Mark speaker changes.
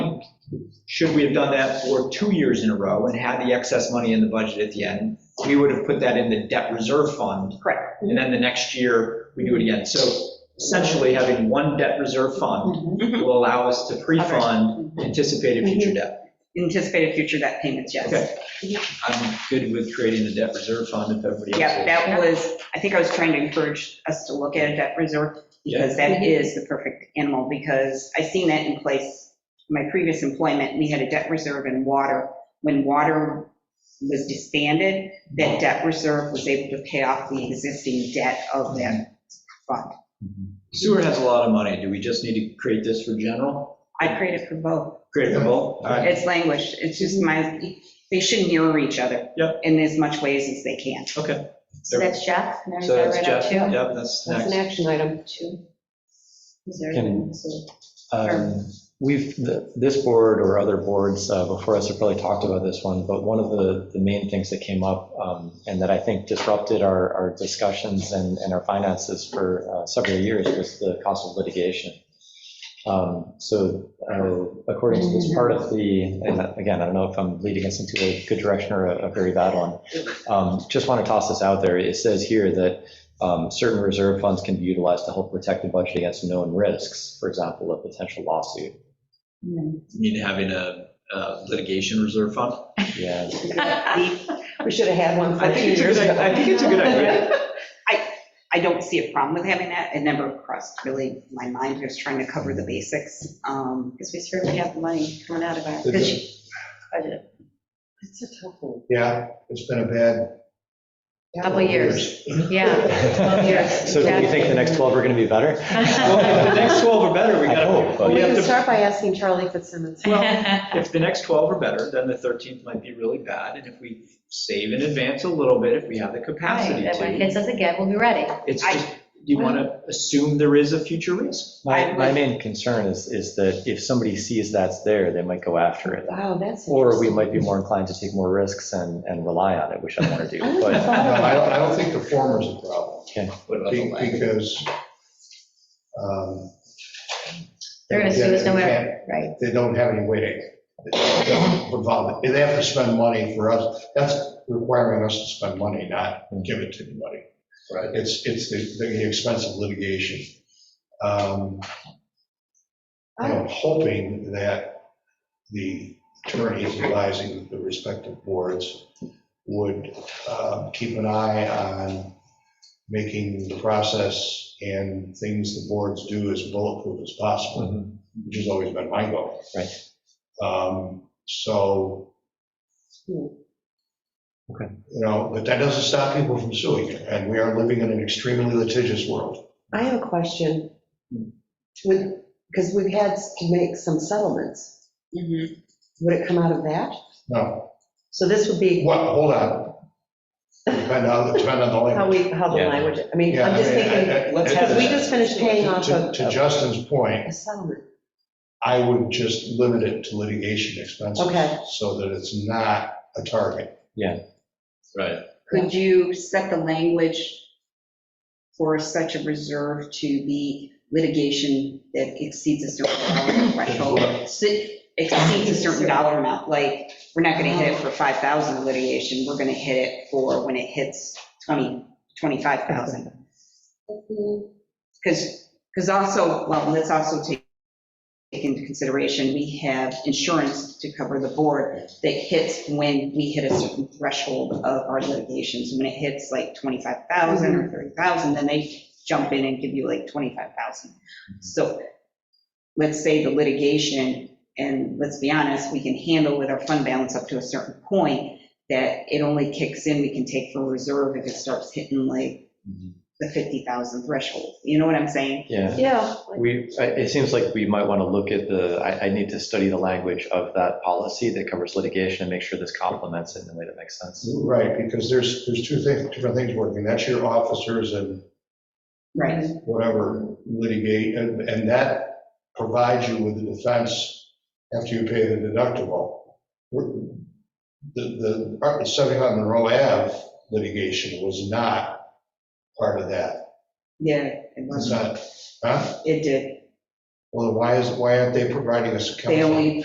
Speaker 1: Should we have done that for two years in a row and had the excess money in the budget at the end, we would have put that in the debt reserve fund.
Speaker 2: Correct.
Speaker 1: And then the next year, we do it again. So essentially, having one debt reserve fund
Speaker 2: Mm-hmm.
Speaker 1: will allow us to pre-fund anticipated future debt.
Speaker 3: anticipated future debt payments, yes.
Speaker 1: Okay. I'm good with creating the debt reserve fund if everybody else
Speaker 3: Yeah,
Speaker 1: is.
Speaker 3: that was, I think I was trying to encourage us to look at a debt reserve because that is the perfect animal, because I seen that in place, my previous employment, we had a debt reserve in water. When water was disbanded, that debt reserve was able to pay off the existing debt of that fund.
Speaker 1: Sewer has a lot of money. Do we just need to create this for general?
Speaker 3: I created for both.
Speaker 1: Create it for both? All right.
Speaker 3: It's languished, it's just my, they should mirror each other.
Speaker 1: Yep.
Speaker 3: In as much ways as they can.
Speaker 2: So that's Jeff. and there's
Speaker 1: So
Speaker 2: that
Speaker 1: that's
Speaker 2: right up
Speaker 1: Jeff,
Speaker 2: too.
Speaker 1: yep, that's
Speaker 2: That's an
Speaker 1: next.
Speaker 2: action item too. Is there-
Speaker 4: Can-
Speaker 2: so-
Speaker 4: Um, We've, th- this board or other boards uh, before us have probably talked about this one, but one of the, the main things that came up um, and that I think disrupted our, our discussions and, and our finances for uh, several years was the cost of litigation. Um, So uh, according to this part of the, and again, I don't know if I'm leading us into a good direction or a a very bad one. Um, Just want to toss this out there. It says here that um, certain reserve funds can be utilized to help protect the budget against known risks, for example, a potential lawsuit.
Speaker 1: You mean having a uh, litigation reserve fund?
Speaker 4: Yeah,
Speaker 2: We should have had one
Speaker 1: I think
Speaker 2: 14
Speaker 1: it's a
Speaker 2: years
Speaker 1: good,
Speaker 2: ago.
Speaker 1: I think it's a good idea.
Speaker 3: I don't see a problem with having that. It never crossed really my mind, just trying to cover the basics. Um,
Speaker 2: Because we certainly have the money coming out of our
Speaker 5: It's a-
Speaker 2: budget. It's a tough one.
Speaker 5: Yeah, it's been a bad.
Speaker 2: Couple years, yeah. years,
Speaker 4: So do you think the next 12 are going to be better?
Speaker 1: Well, if the next 12 are better, we
Speaker 4: I hope,
Speaker 1: gotta,
Speaker 4: but-
Speaker 1: we
Speaker 6: We
Speaker 1: have
Speaker 6: can
Speaker 1: to,
Speaker 6: start by asking Charlie Fitzsimmons.
Speaker 1: if the next 12 are better, then the 13th might be really bad. And if we save in advance a little bit, if we have the capacity
Speaker 2: Right, When it
Speaker 1: to,
Speaker 2: hits us again, we'll be ready.
Speaker 1: it's
Speaker 3: I-
Speaker 1: just, you want to assume there is a future risk.
Speaker 4: My, my main concern is, is that if somebody sees that's there, they might go after it.
Speaker 6: Wow, that's.
Speaker 4: Or we
Speaker 6: interesting.
Speaker 4: might be more inclined to take more risks and, and rely on it, which I want to do.
Speaker 6: I wouldn't have
Speaker 4: But
Speaker 5: No, I
Speaker 6: thought
Speaker 5: don't, I don't think the former's a problem,
Speaker 1: What about the
Speaker 5: be-
Speaker 1: latter?
Speaker 5: because. um,
Speaker 2: They're gonna sue us no
Speaker 5: they
Speaker 2: matter,
Speaker 5: can't-
Speaker 2: right?
Speaker 5: They don't have any way to revolve it. They have to spend money for us, that's requiring us to spend money, not give it to anybody.
Speaker 1: Right.
Speaker 5: It's, it's the, the expense of litigation. Um, I'm hoping that the attorneys advising the respective boards would uh, keep an eye on making the process and things the boards do as bulletproof as possible,
Speaker 4: Mhm.
Speaker 5: which has always been my goal.
Speaker 4: Right.
Speaker 5: Um, So,
Speaker 4: Okay.
Speaker 5: you know, but that doesn't stop people from suing, and we are living in an extremely litigious world.
Speaker 6: I have a question. Would, because we've had to make some settlements.
Speaker 3: Mhm.
Speaker 6: Would it come out of that?
Speaker 5: No,
Speaker 6: So this would be
Speaker 5: what, hold on. Depend on, depend on the language.
Speaker 6: how we, how the
Speaker 4: Yeah.
Speaker 6: language, I mean,
Speaker 5: Yeah,
Speaker 6: I'm
Speaker 5: I
Speaker 6: just
Speaker 5: mean,
Speaker 6: thinking,
Speaker 5: I- I-
Speaker 4: Let's
Speaker 5: I-
Speaker 4: have
Speaker 6: because we just finished paying off
Speaker 5: To
Speaker 6: a,
Speaker 5: to Justin's point,
Speaker 6: a settlement.
Speaker 5: I would just limit it to litigation expenses.
Speaker 6: Okay.
Speaker 5: So that it's not a target.
Speaker 1: Right.
Speaker 3: Could you set the language for such a reserve to be litigation that exceeds a certain dollar threshold? So it Exceeds a certain dollar amount, like, we're not gonna hit it for 5,000 litigation, we're gonna hit it for when it hits 20, 25,000. Because, because also, well, let's also take take into consideration, we have insurance to cover the board that hits when we hit a certain threshold of our litigations. When it hits like 25,000 or 30,000, then they jump in and give you like 25,000. So let's say the litigation, and let's be honest, we can handle with our fund balance up to a certain point, that it only kicks in, we can take for reserve if it starts hitting like
Speaker 4: Mhm.
Speaker 3: the 50,000 threshold. You know what I'm saying?
Speaker 4: Yeah.
Speaker 6: Yeah.
Speaker 4: We, I- it seems like we might want to look at the, I, I need to study the language of that policy that covers litigation and make sure this complements it in a way that makes sense.
Speaker 5: Right, because there's, there's two things, different things working. That's your officers and
Speaker 3: Right.
Speaker 5: whatever litigate, and and that provides you with the defense after you pay the deductible. The, the 75 Monroe Ave litigation was not part of that.
Speaker 3: Yeah, it
Speaker 5: It's
Speaker 3: was,
Speaker 5: not, huh?
Speaker 3: it did.
Speaker 5: Well, why is, why aren't they providing us counsel?
Speaker 3: They only